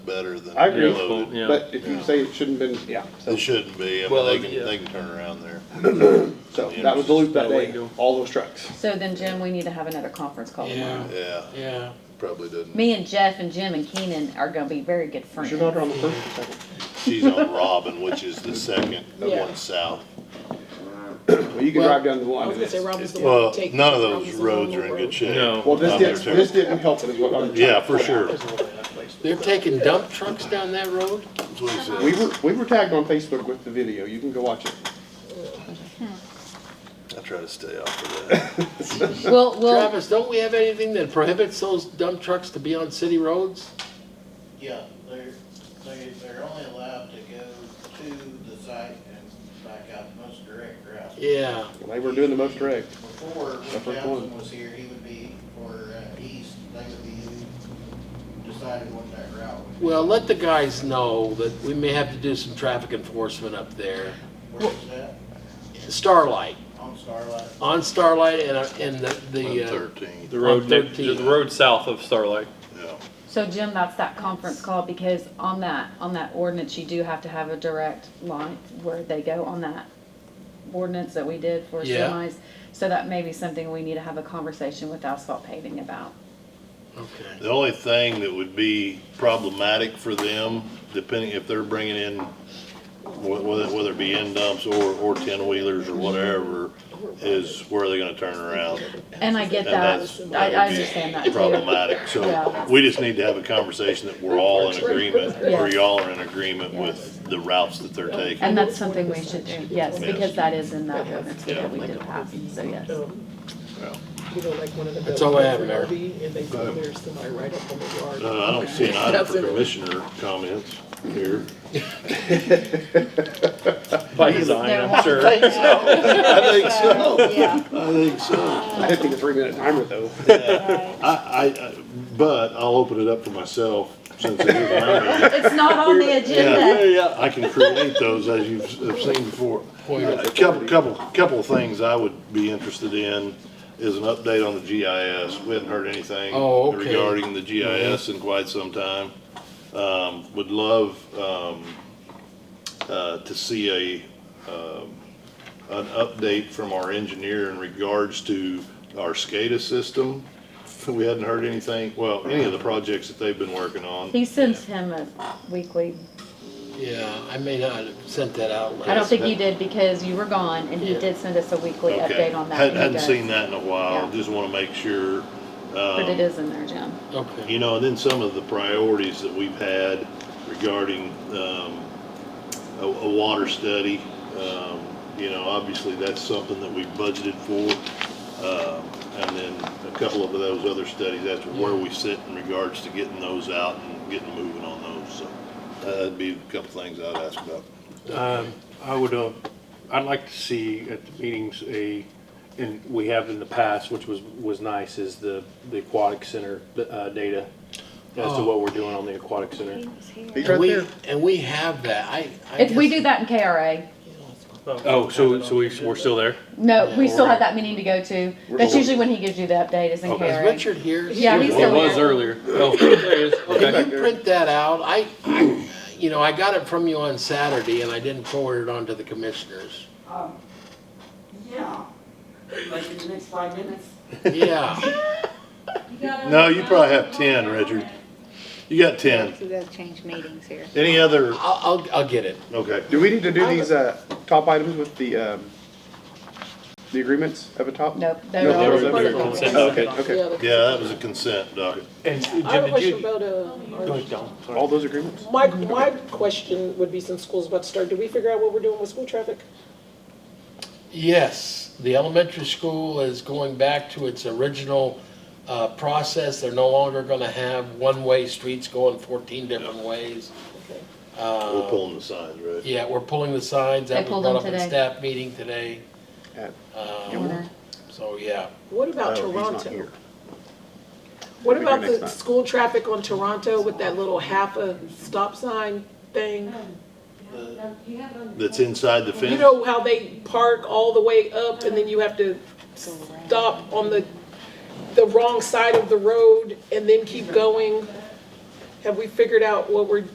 better than I agree. loaded. Yeah. But if you say it shouldn't been, yeah, so, It shouldn't be, I mean, Well, they can, yeah. they can turn around there. so that was the loop that day, all those trucks. So then, Jim, we need to have another conference call tomorrow. Yeah, Yeah, yeah. probably doesn't. Me and Jeff and Jim and Keenan are gonna be very good Was friends. your daughter on the first or second? She's on Robin, which is the second Yeah. one south. Well, you can drive down the I was one. gonna say Robin's the one Well, that take. none of those Robin's the roads are one in road. good shape. No. Well, this Not there, didn't, too. this didn't help it is what I'm trying to. Yeah, for sure. They're taking dump trucks down that road? That's what he said. We were, we were tagged on Facebook with the video. You can go watch it. I try to stay off of that. We'll, we'll, Travis, don't we have anything that prohibits those dump trucks to be on city roads? Yeah, they're, they, they're only allowed to go to the site and back out the most direct route. Yeah, They were doing the most direct. Before, Except when for Townsend one. was here, he would be, or uh, east, they would be deciding what that route would be. well, let the guys know that we may have to do some traffic enforcement up there. Where is that? Starlight, On Starlight? on Starlight and, uh, and the, One the, uh, thirteen, The road, On next- 13. the road south of Starlight. yeah. so Jim, that's that conference call, because on that, on that ordinance, you do have to have a direct line where they go on that ordinance that we did for Yeah. semis. So that may be something we need to have a conversation with asphalt paving about. okay. The only thing that would be problematic for them, depending if they're bringing in, wh- whether, whether it be end dumps or, or ten wheelers or whatever, is where are they gonna turn around? And I get And that, that's- I, I would be understand that too. Problematic, so Yeah. we just need to have a conversation that we're all in agreement, or Yes. y'all are in agreement with the routes that they're taking. And that's something we should do, yes, because that is in that ordinance Yeah. that we did pass, so yes. Well, You know, like one of the. That's all I have, Mayor. RV, And they put their semi right up on the yard. No, uh, I don't see an item for commissioner comments here. By design, No. I'm sure. I think so. Yeah. I think so. I did think a three minute timer though. I, I, I- but I'll open it up for myself since it is mine. It's not on the agenda. Yeah, I can create those as you've have seen before. A couple, couple, couple of things I would be interested in is an update on the GIS. We hadn't heard anything Oh, okay. Mm-hmm. regarding the GIS in quite some time. Um, would love, um, uh, to see a, um, an update from our engineer in regards to our SCADA system. We hadn't heard anything, well, any of the projects that they've been working on. He sends him a weekly, Yeah, I may not have sent that out I don't last. think you did because you were gone and he Yeah. did send us a weekly Okay. update on that. Hadn't, and he hadn't does. seen that in a while, Yeah. just wanna make sure, But it is in there, Jim. Okay, you know, and then some of the priorities that we've had regarding, um, a, a water study. Um, you know, obviously that's something that we budgeted for. Um, and then a couple of those other studies, that's where we sit in regards to getting those out and getting moving on those, so. uh, That'd be a couple things I'd ask about. I would, uh, I'd like to see at the meetings a, and we have in the past, which was, was nice, is the, the aquatic center, uh, data as to Oh. what we're doing on the aquatic center. He's and right we, there. and we have that, I, I If we guess- do that in KRA, Oh, so, so we, we're still there? no, we still have that meeting to go to. That's usually when he gives you the update is in Okay. Is KRA. Richard here? Yeah, he's It still was here. earlier. Oh, there it is. Okay. If you print that out, I, you know, I got it from you on Saturday and I didn't forward it on to the commissioners. Um, yeah, like in the next five minutes. Yeah, No, you probably have ten, Richard. You got ten. So they'll change meetings here. Any other, I'll, I'll, I'll get it. okay. Do we need to do these, uh, top items with the, um, the agreements up at top? Nope. No, they're all they were- recorded. they were consent. Oh, Okay, okay. Yeah, that was a consent docket. And Jim, I have a did question you? about, Go uh, ahead, Don. Sorry. All those agreements? my, my question would be since school's about to start, did we figure out what we're doing with school traffic? Yes, the elementary school is going back to its original, uh, process. They're no longer gonna have one-way streets going fourteen different ways. Uh, We're pulling the signs, right? Yeah, we're pulling the signs. They That was pulled brought them up in today. staff meeting today. At- Um, so, yeah. What about Oh, Uh, he's not Toronto? here. We'll What be here about next the time. school traffic on Toronto with that little half a stop sign thing? That's inside the You fence? know how they park all the way up and then you have to stop on the, the wrong side of the road and then keep going? Have we figured out what we're